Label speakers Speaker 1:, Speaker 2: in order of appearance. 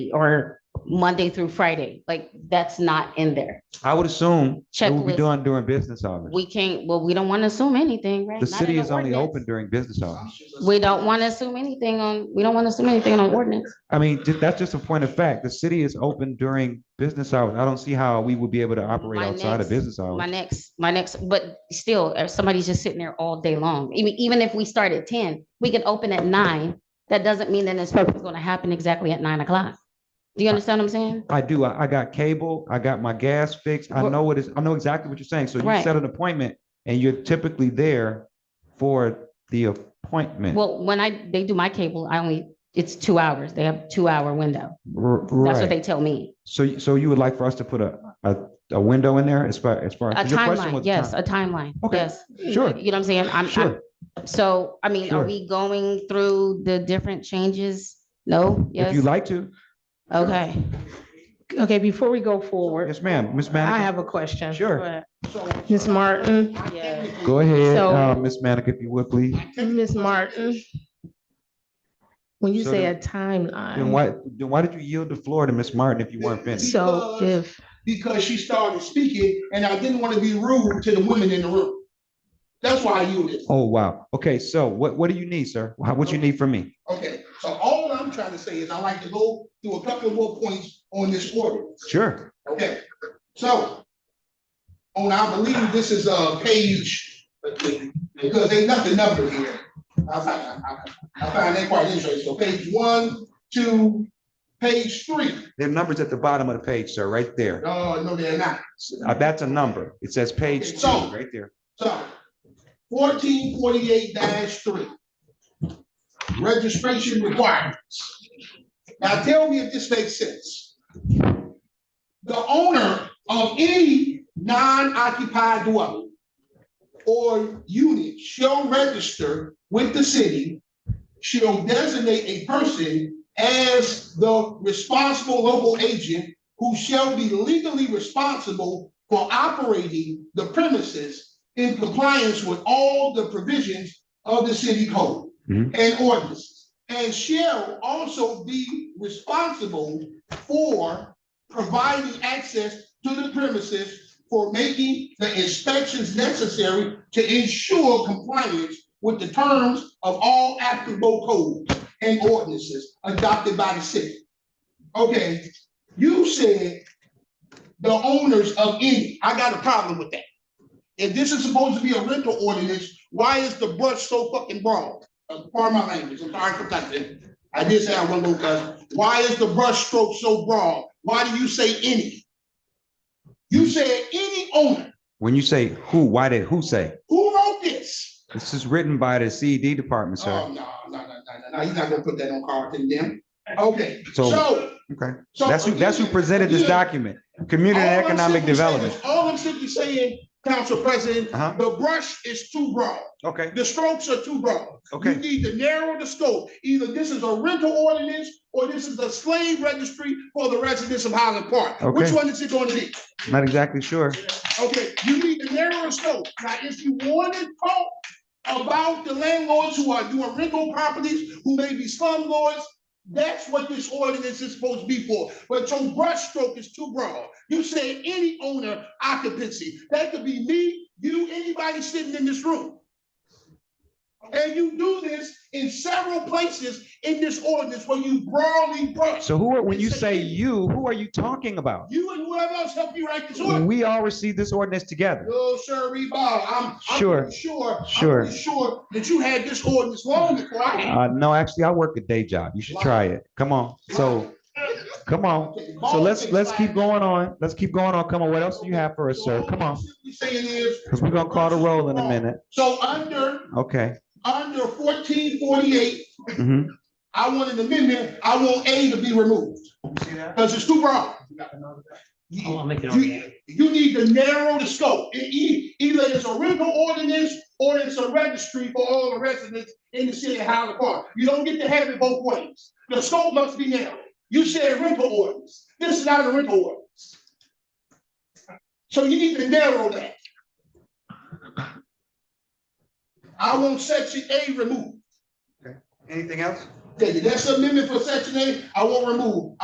Speaker 1: or Monday through Friday. Like, that's not in there.
Speaker 2: I would assume it will be
Speaker 1: Checklist.
Speaker 2: done during business hours.
Speaker 1: We can't, well, we don't want to assume anything, right?
Speaker 2: The
Speaker 1: Not
Speaker 2: city
Speaker 1: in
Speaker 2: is only
Speaker 1: ordinance.
Speaker 2: open during business hours.
Speaker 1: We don't want to assume anything on, we don't want to assume anything on ordinance.
Speaker 2: I mean, ju- that's just a point of fact. The city is open during business hours. I don't see how we would be able to operate
Speaker 1: My
Speaker 2: outside
Speaker 1: next-
Speaker 2: of business hours.
Speaker 1: My next, my next, but still, if somebody's just sitting there all day long, even, even if we start at ten, we can open at nine. That doesn't mean that inspection is going to happen exactly at nine o'clock. Do you understand what I'm saying?
Speaker 2: I do. I, I got cable. I got my gas fixed. I
Speaker 1: Well-
Speaker 2: know what is, I know exactly what you're saying. So you
Speaker 1: Right.
Speaker 2: set an appointment and you're typically there for the appointment.
Speaker 1: Well, when I, they do my cable, I only, it's two hours. They have two hour window.
Speaker 2: R-
Speaker 1: That's what
Speaker 2: right.
Speaker 1: they tell me.
Speaker 2: So, y- so you would like for us to put a, a, a window in there as far, as far?
Speaker 1: A
Speaker 2: as your question
Speaker 1: timeline,
Speaker 2: was
Speaker 1: yes,
Speaker 2: time.
Speaker 1: a timeline,
Speaker 2: Okay,
Speaker 1: yes.
Speaker 2: Sure,
Speaker 1: You know what I'm saying? I'm, I'm,
Speaker 2: sure.
Speaker 1: so, I mean,
Speaker 2: Sure.
Speaker 1: are we going through the different changes? No,
Speaker 2: If you
Speaker 1: yes,
Speaker 2: like to.
Speaker 1: okay.
Speaker 3: Okay, before we go forward,
Speaker 2: Yes, ma'am. Ms.
Speaker 3: I
Speaker 2: Manica?
Speaker 3: have a question.
Speaker 2: Sure.
Speaker 3: Go ahead. Ms. Martin,
Speaker 2: Go ahead,
Speaker 3: So-
Speaker 2: uh, Ms. Manica, if you would, please.
Speaker 3: Ms. Martin. When you
Speaker 2: So
Speaker 3: say
Speaker 2: then-
Speaker 3: a
Speaker 2: Then
Speaker 3: timeline,
Speaker 2: why, then why did you yield the floor to Ms. Martin if you weren't finished?
Speaker 3: so if,
Speaker 4: because she started speaking and I didn't want to be rude to the women in the room. That's why I yielded.
Speaker 2: Oh, wow. Okay, so what, what do you need, sir? How- What you need from me?
Speaker 4: Okay, so all I'm trying to say is I like to go through a couple more points on this ordinance.
Speaker 2: Sure.
Speaker 4: Okay, so on, I believe this is uh page, because they got the number here. I find, I- I find that quite interesting. So page one, two, page three. Oh,
Speaker 2: There are numbers at the bottom of the page, sir, right there.
Speaker 4: No, no, they're not.
Speaker 2: Uh, That's a number. It says page two,
Speaker 4: So-
Speaker 2: right there.
Speaker 4: So fourteen forty-eight three. Registration requirements. Now tell me if this makes sense. The owner of any non-occupied dwelling or unit shall register with the city. Shall designate a person as the responsible local agent who shall be legally responsible for operating the premises in compliance with all the provisions of the city code
Speaker 2: Mhm.
Speaker 4: and ordinances, and shall also be responsible for providing access to the premises for making the inspections necessary to ensure compliance with the terms of all applicable codes and ordinances adopted by the city. Okay, you said the owners of any, I got a problem with that. If this is supposed to be a rental ordinance, why is the brush so fucking broad? Uh, Pardon my language, I'm sorry for cussing. I did say I wasn't gonna cuss. Why is the brush stroke so broad? Why do you say any? You said any owner.
Speaker 2: When you say who, why did who say?
Speaker 4: Who wrote this?
Speaker 2: This is written by the CED department,
Speaker 4: Oh,
Speaker 2: sir.
Speaker 4: no, no, no, no, no, no, you're not gonna put that on Carlton then. Okay,
Speaker 2: So,
Speaker 4: so.
Speaker 2: okay,
Speaker 4: so
Speaker 2: that's who, that's who
Speaker 4: again-
Speaker 2: presented this
Speaker 4: again,
Speaker 2: document, Community
Speaker 4: All
Speaker 2: and
Speaker 4: I'm
Speaker 2: Economic
Speaker 4: simply saying
Speaker 2: Development.
Speaker 4: is- All I'm simply saying, Council President,
Speaker 2: Uh-huh.
Speaker 4: the brush is too broad.
Speaker 2: Okay,
Speaker 4: The strokes are too broad. You
Speaker 2: okay,
Speaker 4: need to narrow the scope. Either this is a rental ordinance or this is a slave registry for the residents of Highland Park. Which
Speaker 2: Okay.
Speaker 4: one is it going to be?
Speaker 2: not exactly sure.
Speaker 4: Okay, you need to narrow the scope. Now, if you want to talk about the landlords who are doing rental properties, who may be slumlords, that's what this ordinance is supposed to be for. But your brush stroke is too broad. You said any owner occupancy. That could be me, you, anybody sitting in this room. And you do this in several places in this ordinance where you broadly brush.
Speaker 2: So who, are when you say you, who are you talking about?
Speaker 4: You and whoever else helped you write this ordinance.
Speaker 2: We all received this ordinance together.
Speaker 4: No, sir, Bob, I'm, I'm
Speaker 2: Sure.
Speaker 4: pretty sure, I'm
Speaker 2: Sure.
Speaker 4: pretty sure that you had this ordinance long before I had.
Speaker 2: Uh, no, actually, I work a day job. You should try it. Come on. So, come on. So let's, let's keep going on. Let's keep going on. Come on. What else do you have for us, sir? Come on.
Speaker 4: Simply saying is,
Speaker 2: Cause we're gonna call the roll in a minute.
Speaker 4: so under,
Speaker 2: Okay.
Speaker 4: under fourteen forty-eight,
Speaker 2: Mhm.
Speaker 4: I want an amendment, I want A to be removed. Cause it's too broad.
Speaker 5: Oh, I'll make it on
Speaker 4: You,
Speaker 5: that.
Speaker 4: you need to narrow the scope. E- e- Either it's a rental ordinance or it's a registry for all the residents in the city of Highland Park. You don't get to have it both ways. The scope must be narrow. You said rental ordinance. This is not a rental ordinance. So you need to narrow that. I want section A removed.
Speaker 2: Anything else?
Speaker 4: That- That's amendment for section A. I want removed.